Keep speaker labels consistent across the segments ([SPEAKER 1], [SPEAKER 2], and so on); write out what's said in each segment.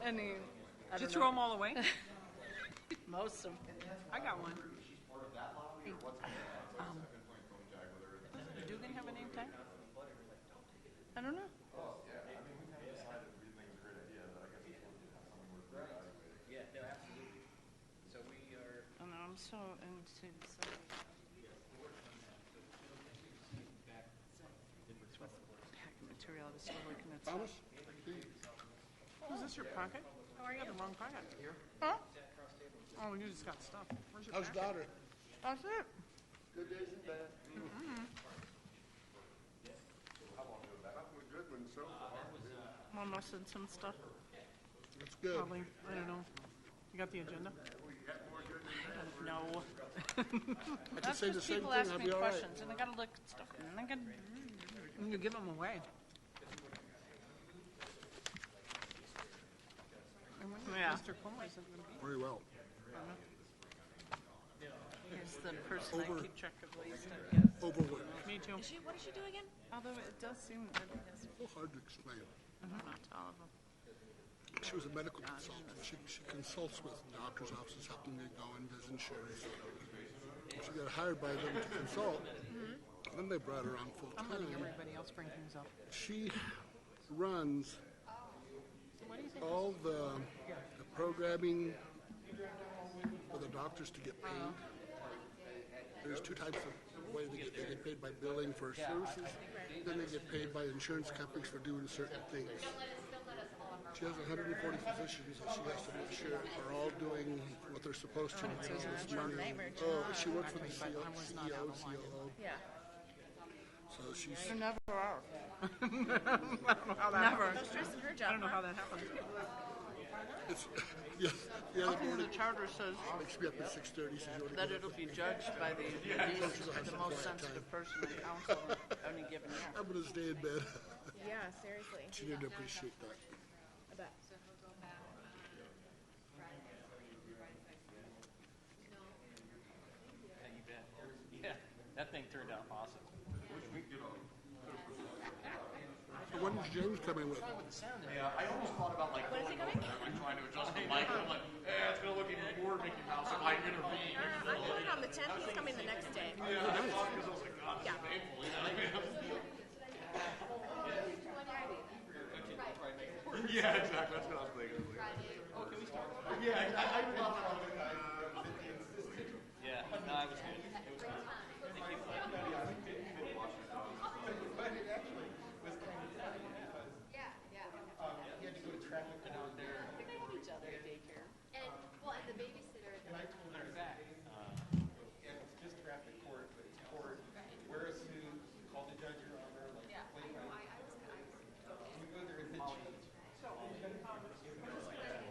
[SPEAKER 1] I mean,
[SPEAKER 2] I don't
[SPEAKER 1] did you throw
[SPEAKER 2] know.
[SPEAKER 1] them all away?
[SPEAKER 2] Most of them.
[SPEAKER 1] I got one.
[SPEAKER 3] She's part of that lobby or what's going on? So I've been playing phone tag with her.
[SPEAKER 1] Do they have a name tag?
[SPEAKER 2] I don't know.
[SPEAKER 3] I mean, we kind of decided we didn't think it was a great idea, but I guess it's one that's something worth reevaluating.
[SPEAKER 4] Yeah, no, absolutely. So we are,
[SPEAKER 2] I don't know. Oh, I'm so into some pack material. I was still looking at. stuff.
[SPEAKER 1] Oh, is this your pocket? Oh, I got the wrong pocket. Here? Huh? Oh, you just got stuff. Where's your
[SPEAKER 5] How's
[SPEAKER 1] packet?
[SPEAKER 5] daughter?
[SPEAKER 1] That's it.
[SPEAKER 3] Good days and bad. How long ago was that? Nothing good one so far.
[SPEAKER 2] Mom missing some stuff.
[SPEAKER 5] That's good.
[SPEAKER 1] Probably. Oh, I don't know. You got the agenda?
[SPEAKER 2] No.
[SPEAKER 5] I could
[SPEAKER 2] That's
[SPEAKER 5] say the
[SPEAKER 2] because
[SPEAKER 5] same
[SPEAKER 2] people
[SPEAKER 5] thing,
[SPEAKER 2] ask
[SPEAKER 5] I'd
[SPEAKER 2] me
[SPEAKER 5] be all right.
[SPEAKER 2] questions, and I gotta look at stuff, and I gotta.
[SPEAKER 1] And you give them away. And when
[SPEAKER 2] Yeah.
[SPEAKER 1] Mr. Cuomo isn't going to be
[SPEAKER 5] Very well.
[SPEAKER 2] He's the person I
[SPEAKER 5] Over.
[SPEAKER 2] keep track of least.
[SPEAKER 5] Overworked.
[SPEAKER 1] Me too.
[SPEAKER 2] Is she? What does she do again? Although it does seem that yes,
[SPEAKER 5] So hard to explain.
[SPEAKER 2] Mm-hmm. not all of them.
[SPEAKER 5] She was a medical consultant. She, she consults with doctors' offices, helping them go in, does insurance. She got hired by them to consult.
[SPEAKER 2] Mm-hmm.
[SPEAKER 5] and Then they brought her on full
[SPEAKER 1] I'm
[SPEAKER 5] time.
[SPEAKER 1] letting everybody else bring things up.
[SPEAKER 5] She runs all the, the programming for the doctors to get paid. There's two types of way they get paid. They get paid by billing for services, then they get paid by insurance companies for doing certain things. She has 140 physicians that she has to make sure are all doing what they're supposed to. because it's money. Oh, she works with the CEO, CEO, COO.
[SPEAKER 2] Yeah.
[SPEAKER 5] E So she's,
[SPEAKER 2] You never are.
[SPEAKER 1] I don't know how that
[SPEAKER 2] Never.
[SPEAKER 1] happened.
[SPEAKER 2] stressing her
[SPEAKER 1] I
[SPEAKER 2] job.
[SPEAKER 1] don't know how that happened.
[SPEAKER 5] it's, yes, the other
[SPEAKER 2] The
[SPEAKER 5] morning,
[SPEAKER 2] charter says
[SPEAKER 5] Wakes me up at six thirty, says you
[SPEAKER 2] that
[SPEAKER 5] want to
[SPEAKER 2] it'll be judged by the, the, the most sensitive person in council on any given year.
[SPEAKER 5] I'm gonna stay in bed.
[SPEAKER 6] Yeah, seriously.
[SPEAKER 5] She didn't appreciate that.
[SPEAKER 6] I bet.
[SPEAKER 4] yeah, you bet. Yeah, that thing turned out awesome.
[SPEAKER 5] So when is James coming with?
[SPEAKER 3] Yeah, I almost thought about like going over there
[SPEAKER 6] Uh,
[SPEAKER 3] and trying to adjust the mic. I'm like, eh, it's gonna look even more Mickey Mouse if I intervene.
[SPEAKER 6] I'm going on the tenth, he's coming the next day. Yeah.
[SPEAKER 3] Yeah, exactly. That's what I was thinking.
[SPEAKER 4] Yeah, no, it was good. It was good. Thank you.
[SPEAKER 7] And, well, and the babysitter. And I told her that, Uh,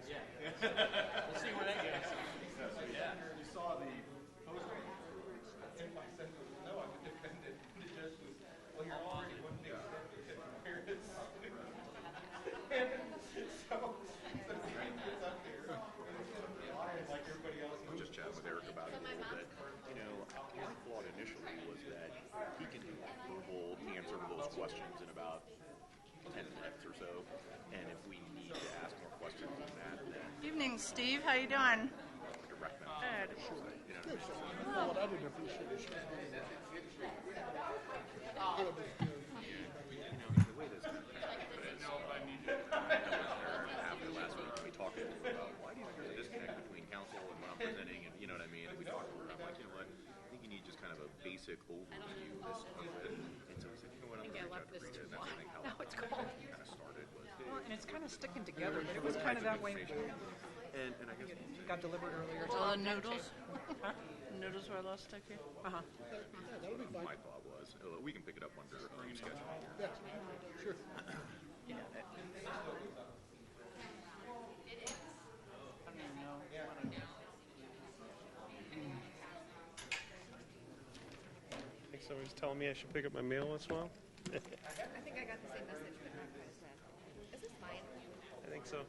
[SPEAKER 4] We'll see where that goes.
[SPEAKER 3] I was just chatting with Eric about it a little bit. You know, his thought initially was that he can do like verbal answer to those questions in about ten minutes or so. And if we need to ask more questions than that, then
[SPEAKER 2] Evening, Steve. How you doing?
[SPEAKER 3] direct them.
[SPEAKER 2] Good.
[SPEAKER 5] Well, I didn't appreciate it.
[SPEAKER 3] You know, the way this kind of happened is, um, I was there after last week, we talked a little about why do you think there's a disconnect between council and what I'm presenting, and you know what I mean? And we talked over it, I'm like, you know what? I think you need just kind of a basic overview of it. And so I was like, you know what, I'm gonna reach out to Rita, and that's I think how it kind of started was, hey,
[SPEAKER 1] Well, and it's kind of sticking together, but it was kind of that way.
[SPEAKER 3] and, and I guess one thing,
[SPEAKER 1] Got delivered earlier.
[SPEAKER 2] Well, the noodles. Noodles were last to you.
[SPEAKER 1] Uh-huh.
[SPEAKER 5] Yeah, that'll be fine.
[SPEAKER 3] my thought was, oh, we can pick it up under um, schedule.
[SPEAKER 5] Yeah, sure.
[SPEAKER 2] I don't even know. what I-
[SPEAKER 8] I think someone's telling me I should pick up my mail once in a while.
[SPEAKER 6] I think I got the same message, but not quite as bad. Is this mine?
[SPEAKER 8] I think so.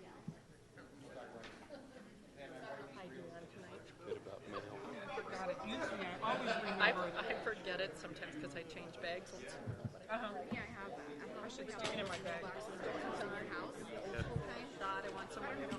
[SPEAKER 6] I do on tonight.
[SPEAKER 1] Forgot it. Usually I always
[SPEAKER 2] I,
[SPEAKER 1] remember.
[SPEAKER 2] I forget it sometimes because I change bags.
[SPEAKER 1] Uh-huh.
[SPEAKER 6] Yeah, I have that. I should
[SPEAKER 1] It's taken in my bag.
[SPEAKER 6] Boxes of our house. And I thought I want someone to